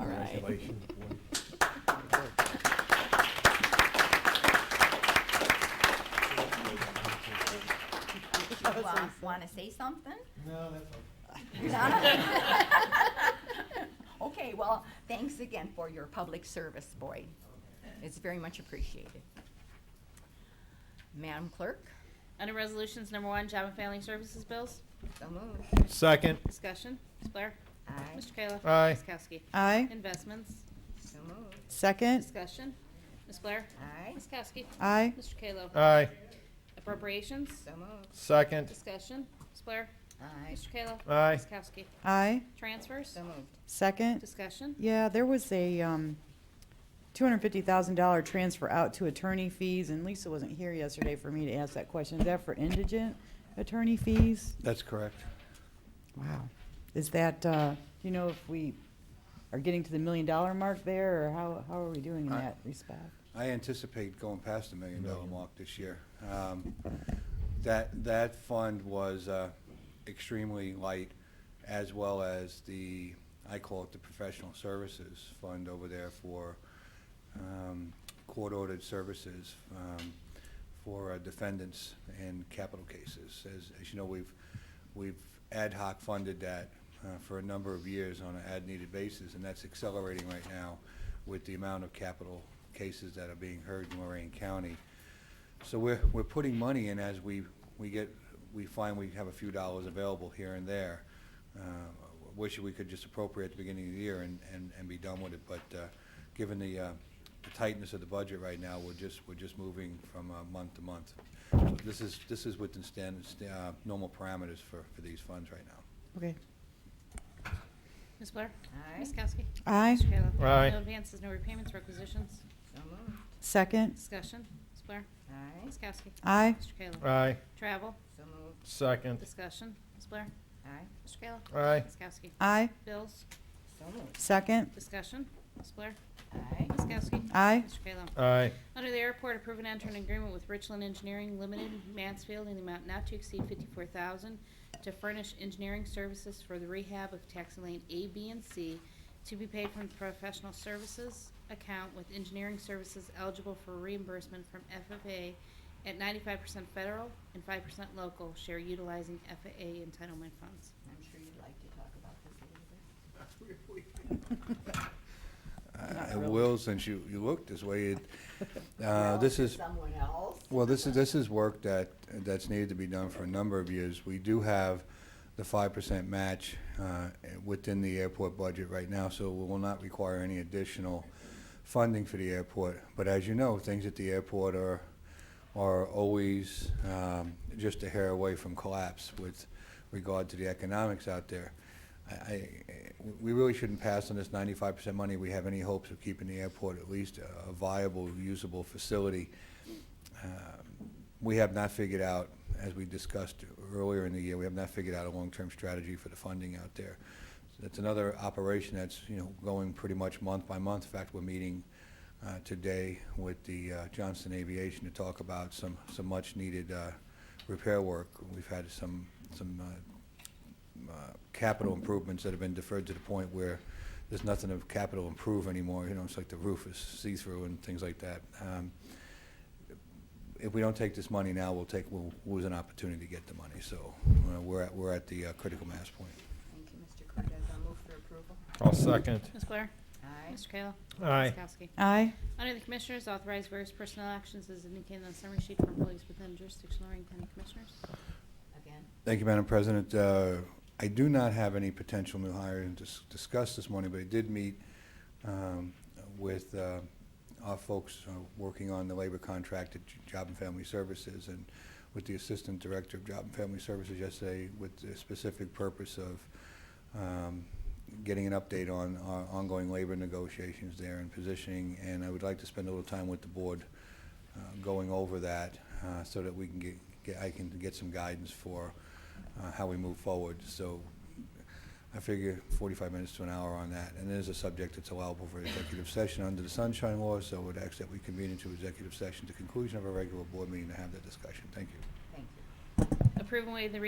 Congratulations. Want to say something? No, that's okay. Okay, well, thanks again for your public service, Boyd. It's very much appreciated. Madam Clerk, Under Resolutions Number One, Job and Family Services Bills, so moved. Second. discussion, Ms. Blair. Aye, Mr. Kayla. Aye. Ms. Kowski. Aye. Investments, so moved. Second. discussion, Ms. Blair. Aye, Ms. Kowski. Aye. Mr. Kayla. Aye. Appropriations, so moved. Second. discussion, Ms. Blair. Aye, Mr. Kayla. Aye. Ms. Kowski. Aye. Transfers, so moved. Second. discussion, Yeah, there was a um, $250,000 transfer out to attorney fees, and Lisa wasn't here yesterday for me to ask that question. Is that for indigent attorney fees? That's correct. Wow. Is that, uh, do you know if we are getting to the million-dollar mark there, or how how are we doing in I- that respect? I anticipate going past the million dollar mark this year. Um, That, that fund was uh, extremely light, as well as the, I call it the professional services fund over there for um, court-ordered services um, for uh, defendants in capital cases. As, as you know, we've, we've ad hoc funded that uh, for a number of years on an ad-needed basis, and that's accelerating right now with the amount of capital cases that are being heard in Lorraine County. So we're, we're putting money in as we, we get, we find we have a few dollars available here and there. Uh, Wish we could just appropriate at the beginning of the year and, and, and be done with it, but, uh, given the, uh, the tightness of the budget right now, we're just, we're just moving from, uh, month to month. So this is, this is within standard, sta- uh, normal parameters for, for these funds right now. Okay. Ms. Blair. Aye, Ms. Kowski. Aye. Mr. Kayla. Aye. No advances, no repayments, requisitions, so moved. Second. discussion, Ms. Blair. Aye, Ms. Kowski. Aye. Mr. Kayla. Aye. Travel, so moved. Second. discussion, Ms. Blair. Aye, Mr. Kayla. Aye. Ms. Kowski. Aye. Bills, so moved. Second. discussion, Ms. Blair. Aye, Ms. Kowski. Aye. Mr. Kayla. Aye. Under the airport, approve and enter an agreement with Richland Engineering Limited, Mansfield, in the amount not to exceed fifty-four thousand to furnish engineering services for the rehab of taxi lane A, B, and C to be paid from the professional services account with engineering services eligible for reimbursement from FFA at ninety-five percent federal and five percent local share utilizing FAA entitlement funds. I'm sure you'd like to talk about this a little bit. I will, since you, you looked this way, it, uh, Well, this to is. Someone else. Well, this is, this is work that, that's needed to be done for a number of years. We do have the five percent match uh, within the airport budget right now, so we will not require any additional funding for the airport. But as you know, things at the airport are, are always um, just a hair away from collapse with regard to the economics out there. I, I, we really shouldn't pass on this ninety-five percent money. We have any hopes of keeping the airport at least a viable, usable facility. Um, We have not figured out, as we discussed earlier in the year, we have not figured out a long-term strategy for the funding out there. So That's another operation that's, you know, going pretty much month by month. In fact, we're meeting uh, today with the uh, Johnston Aviation to talk about some, some much-needed uh, repair work. We've had some, some uh, uh, capital improvements that have been deferred to the point where there's nothing of capital improve anymore, you know, it's like the roof is see-through and things like that. Um, if we don't take this money now, we'll take, we'll lose an opportunity to get the money, so uh, we're at, we're at the uh, critical mass point. Thank you, Mr. Cortez. I'll move for approval. I'll second. Ms. Blair? Aye, Mr. Kayla? Ms. Aye. Kowski? Aye. Under the Commissioners, authorize various personnel actions as indicated on the summary sheet for employees within jurisdiction of Lorraine County Commissioners. again, Thank you, Madam President. Uh, I do not have any potential new hires to s- discuss this morning, but I did meet um, with uh, our folks uh, working on the labor contract at J- Job and Family Services and with the Assistant Director of Job and Family Services yesterday with the specific purpose of um, getting an update on our ongoing labor negotiations there and positioning. And I would like to spend a little time with the board uh, going over that uh, so that we can get, get- I can get some guidance for uh, how we move forward. So I figure 45 minutes to an hour on that. And it is a subject that's allowable for executive session under the Sunshine Law, so I would ask that we convene into executive session at the conclusion of a regular board meeting to have that discussion. Thank you. thank you. Approve and waive the reading